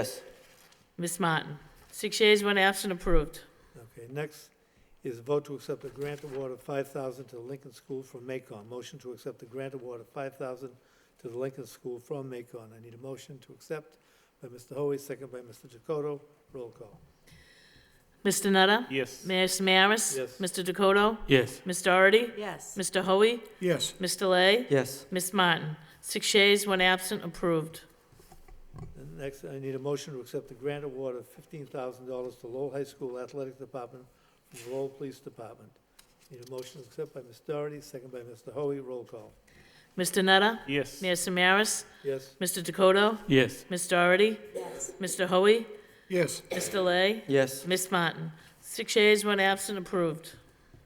Yes. Ms. Martin? Six yeas, one absent, approved. Okay, next is vote to accept a grant award of five thousand to the Lincoln School from Macon. Motion to accept the grant award of five thousand to the Lincoln School from Macon. I need a motion to accept by Mr. Hoy, second by Mr. Dakota. Roll call. Mr. Nutter? Yes. Ms. Maris? Yes. Mr. Dakota? Yes. Ms. Doherty? Yes. Mr. Hoey? Yes. Mr. Lay? Yes. Ms. Martin? Six yeas, one absent, approved. And next, I need a motion to accept the grant award of fifteen thousand dollars to Lowell High School Athletic Department from Lowell Police Department. Need a motion to accept by Ms. Doherty, second by Mr. Hoy. Roll call. Mr. Nutter? Yes. Ms. Maris? Yes? Mr. Dakota? Yes. Ms. Doherty? Yes. Mr. Hoey? Yes. Mr. Lay? Yes. Ms. Martin? Six yeas, one absent, approved.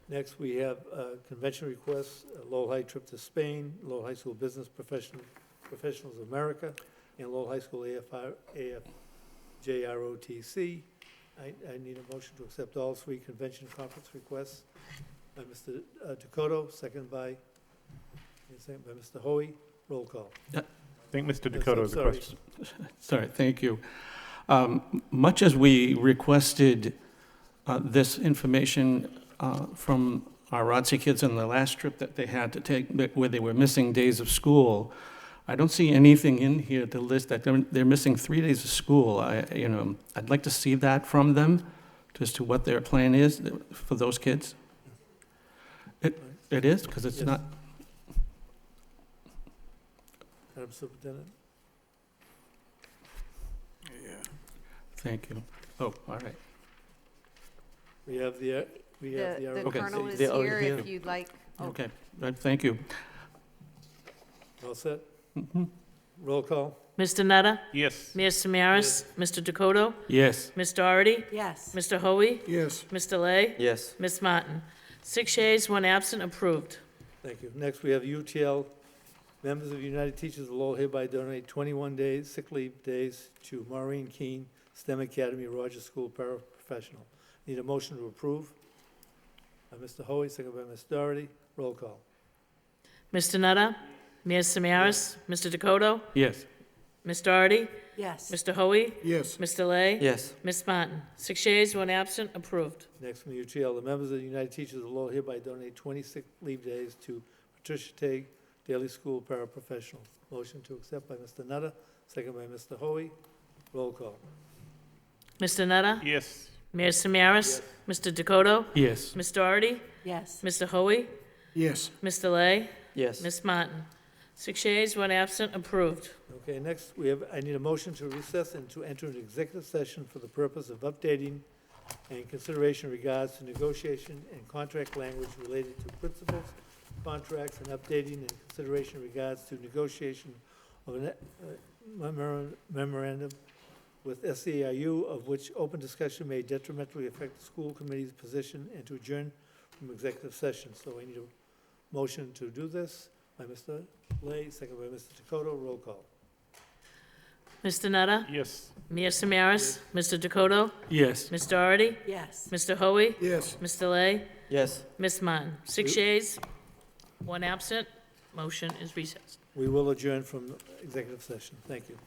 Next, we have uh, convention requests, a Lowell High trip to Spain, Lowell High School Business Profession- Professionals of America, and Lowell High School AFR AFJROTC. I I need a motion to accept all three convention conference requests by Mr. Dakota, second by, second by Mr. Hoy. Roll call. I think Mr. Yes, Dakota I'm has a sorry. question. Sorry, thank you. Um, m- Much as we requested uh, this information uh, from our ROTC kids on the last trip that they had to take, that- where they were missing days of school, I don't see anything in here to list that they're, they're missing three days of school. I, you know, I'd like to see that from them, as to what their plan is for those kids. It, it is, because it's Yes. not, Madam Superintendent? thank you. Oh, all right. We have the, uh, we have the The ROTC. the Okay. colonel is They're all here here. if you'd like. Oh, Okay, Uh, thank you. All set? Mhm. Roll call? Mr. Nutter? Yes. Ms. Maris? Mr. Dakota? Yes. Ms. Doherty? Yes. Mr. Hoey? Yes. Mr. Lay? Yes. Ms. Martin? Six yeas, one absent, approved. Thank you. Next, we have UTL. Members of United Teachers of Lowell hereby donate 21 days, sick leave days, to Maureen Keene, STEM Academy, Rogers School paraprofessional. Need a motion to approve? By Mr. Hoy, second by Ms. Doherty. Roll call. Mr. Nutter? Ms. Samaras? Mr. Dakota? Yes. Ms. Doherty? Yes. Mr. Hoey? Yes. Mr. Lay? Yes. Ms. Martin? Six yeas, one absent, approved. Next from UTL, the members of the United Teachers of Lowell hereby donate 26 leave days to Patricia Teague, Daily School paraprofessional. Motion to accept by Mr. Nutter, second by Mr. Hoy. Roll call. Mr. Nutter? Yes. Mayor Samaras? Mr. Dakota? Yes. Ms. Doherty? Yes. Mr. Hoey? Yes. Mr. Lay? Yes. Ms. Martin? Six yeas, one absent, approved. Okay, next, we have, I need a motion to recess and to enter an executive session for the purpose of updating and consideration regards to negotiation and contract language related to principals, contracts, and updating and consideration regards to negotiation of a memorandum with SEIU, of which open discussion may detrimentally affect the school committee's position, and to adjourn from executive session. So I need a motion to do this by Mr. Lay, second by Mr. Dakota, roll call. Mr. Nutter? Yes. Mayor Samaras? Mr. Dakota? Yes. Ms. Doherty? Yes. Mr. Hoey? Yes. Mr. Lay? Yes. Ms. Martin, six Who- yeas, one absent, motion is recessed. We will adjourn from executive session. Thank you.